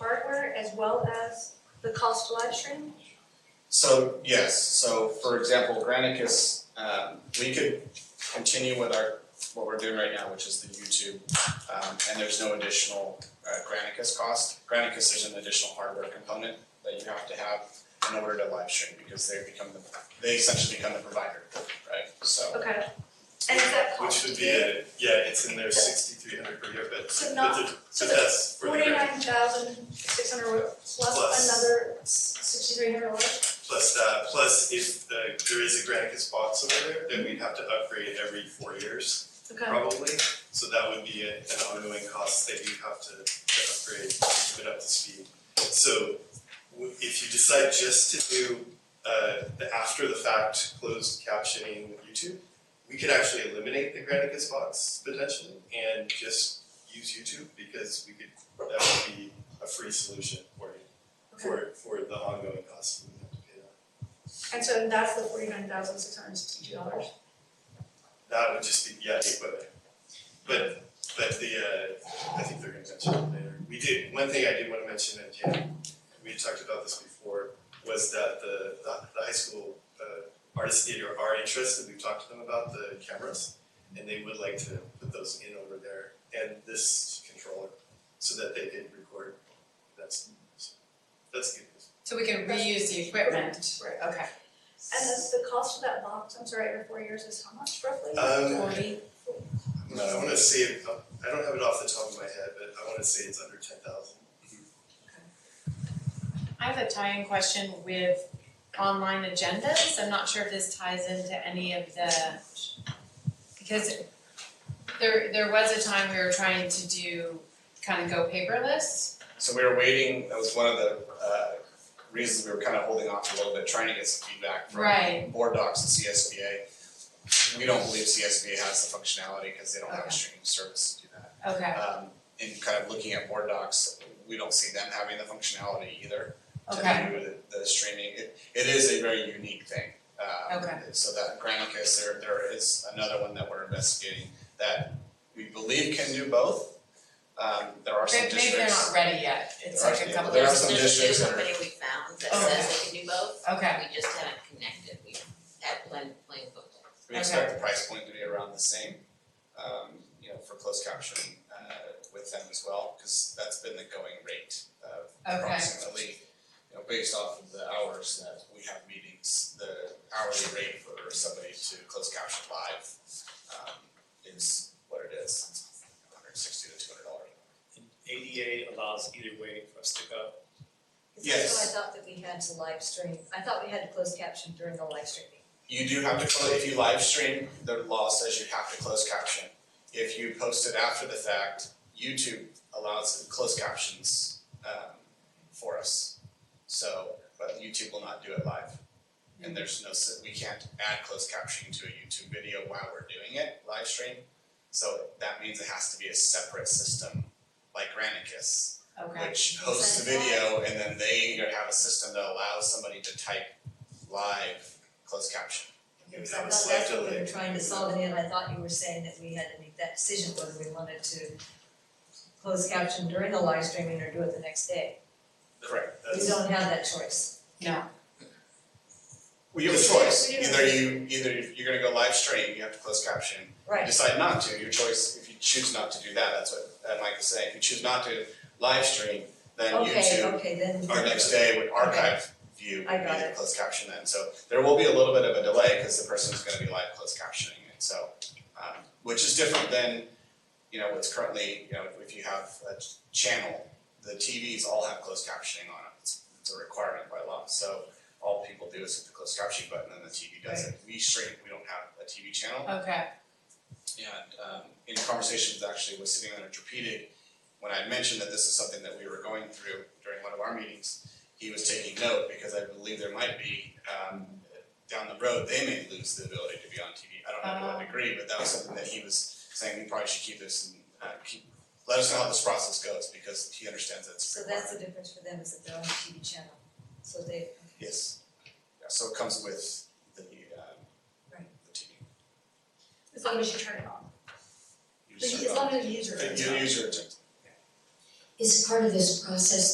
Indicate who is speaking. Speaker 1: hardware as well as the cost to live stream?
Speaker 2: So, yes, so for example, Granicus, um, we could continue with our, what we're doing right now, which is the YouTube. Um, and there's no additional, uh, Granicus cost. Granicus, there's an additional hardware component that you have to have in order to live stream, because they become the, they essentially become the provider, right? So,
Speaker 1: Okay. And is that
Speaker 3: Which
Speaker 1: cost?
Speaker 3: would be, a- yeah, it's in there sixty-three hundred per year, but,
Speaker 1: So
Speaker 3: but
Speaker 1: not,
Speaker 3: the-
Speaker 1: so
Speaker 3: but
Speaker 1: the
Speaker 3: that's for the grant.
Speaker 1: forty-nine thousand six hundred plus
Speaker 3: Plus.
Speaker 1: another sixty-three hundred dollars?
Speaker 3: Plus that, plus if the, there is a Granicus box over there, then we'd have to upgrade every four years,
Speaker 1: Okay,
Speaker 3: probably. So that would be a- an ongoing cost that you have to, to upgrade, to keep it up to speed. So w- if you decide just to do, uh, the after the fact closed captioning with YouTube, we could actually eliminate the Granicus box potentially and just use YouTube because we could, that would be a free solution for you for for the ongoing costs we have to pay that.
Speaker 1: and so that's the forty-nine thousand six hundred sixty-two dollars?
Speaker 3: That would just be, yeah, the equipment. But but the uh, I think they're gonna mention it later. We did, one thing I did wanna mention, and yeah, we had talked about this before, was that the the the high school uh artist theater are interested, we've talked to them about the cameras. And they would like to put those in over there and this controller, so that they can record. That's that's good news.
Speaker 4: So we can reuse the equipment,
Speaker 1: Right.
Speaker 4: okay.
Speaker 1: And the, the cost of that box, I'm sorry, every four years is how much roughly?
Speaker 3: Um,
Speaker 4: Forty,
Speaker 3: No, I wanna say, it- I don't have it off the top of my head, but I wanna say it's under ten thousand.
Speaker 4: I have a tie-in question with online agendas, I'm not sure if this ties into any of the, because there, there was a time we were trying to do, kind of go paperless,
Speaker 2: so we were waiting, that was one of the, uh, reasons we were kind of holding off a little bit, trying to get some feedback from
Speaker 4: right?
Speaker 2: board docs and CSBA. We don't believe CSBA has the functionality because they don't have a
Speaker 4: Okay.
Speaker 2: streaming service to do that.
Speaker 4: Okay,
Speaker 2: Um, in kind of looking at board docs, we don't see them having the functionality either to
Speaker 4: okay,
Speaker 2: do the, the streaming. It, it is a very unique thing. Um,
Speaker 4: Okay.
Speaker 2: So that Granicus, there, there is another one that we're investigating that we believe can do both. Um, there are some
Speaker 4: maybe
Speaker 2: districts.
Speaker 4: maybe they're not ready yet, it's
Speaker 2: There
Speaker 4: like
Speaker 2: are-
Speaker 4: a couple
Speaker 2: there
Speaker 4: of,
Speaker 2: are some districts that are-
Speaker 5: There's a new company we found that
Speaker 4: Okay.
Speaker 5: says it can do both,
Speaker 4: okay,
Speaker 5: we just haven't connected, we have plain, plain book.
Speaker 2: We expect the price point to be around the same, um, you know, for closed caption, uh, with them as well, cause that's been the going rate of
Speaker 4: Okay.
Speaker 2: approximately, you know, based off of the hours that we have meetings, the hourly rate for somebody to close caption live, um, is what it is, it's hundred sixty to two hundred dollars.
Speaker 6: And ADA allows either way for us to go.
Speaker 2: Yes.
Speaker 7: That's what I thought that we had to live stream, I thought we had to close caption during the live streaming.
Speaker 2: You do have to close, if you live stream, the law says you have to close caption. If you post it after the fact, YouTube allows closed captions um for us. So, but YouTube will not do it live. And there's no, s- we can't add closed captioning to a YouTube video while we're doing it, live stream. So that means it has to be a separate system, like Granicus
Speaker 4: okay,
Speaker 2: which hosts the video and then they have a system that allows somebody to type live closed caption.
Speaker 7: Because I thought that's what we were trying to solve it in, I thought you were saying that we had to make that decision whether we wanted to close caption during the live streaming or do it the next day.
Speaker 2: Correct.
Speaker 7: We
Speaker 3: That's,
Speaker 7: don't have that choice.
Speaker 4: no,
Speaker 2: Well, you have a
Speaker 3: We do-
Speaker 2: choice,
Speaker 1: we do have-
Speaker 2: either you, either if you're gonna go live stream, you have to close caption. You
Speaker 7: Right,
Speaker 2: Decide not to, your choice, if you choose not to do that, that's what uh, Mike is saying, if you choose not to live stream, then
Speaker 7: okay,
Speaker 2: YouTube,
Speaker 7: okay, then.
Speaker 2: our next day would archive view,
Speaker 7: I
Speaker 2: would be
Speaker 7: got
Speaker 2: the
Speaker 7: it.
Speaker 2: closed caption then, so there will be a little bit of a delay, cause the person's gonna be live closed captioning it, so. Um, which is different than, you know, what's currently, you know, if you have a ch- channel, the TVs all have closed captioning on them, it's, it's a requirement by law, so. All people do is hit the closed captioning button and the TV does it, we stream, we don't have a TV channel,
Speaker 4: okay,
Speaker 2: and um in conversations actually with City Manager Pedic, when I mentioned that this is something that we were going through during one of our meetings, he was taking note because I believe there might be um down the road, they may lose the ability to be on TV. I don't know to what
Speaker 7: Oh.
Speaker 4: Ah.
Speaker 2: degree, but that was something that he was saying, we probably should keep this and uh keep, let us know how this process goes because he understands that's.
Speaker 7: So that's the difference for them, is that they're on the TV channel, so they,
Speaker 2: Yes, yeah, so it comes with the um
Speaker 7: Right.
Speaker 2: the TV.
Speaker 1: As long as you turn it on.
Speaker 2: You
Speaker 1: The-
Speaker 2: just-
Speaker 1: As long as the user. turns it
Speaker 2: The
Speaker 1: on.
Speaker 2: user turns
Speaker 8: is part of this process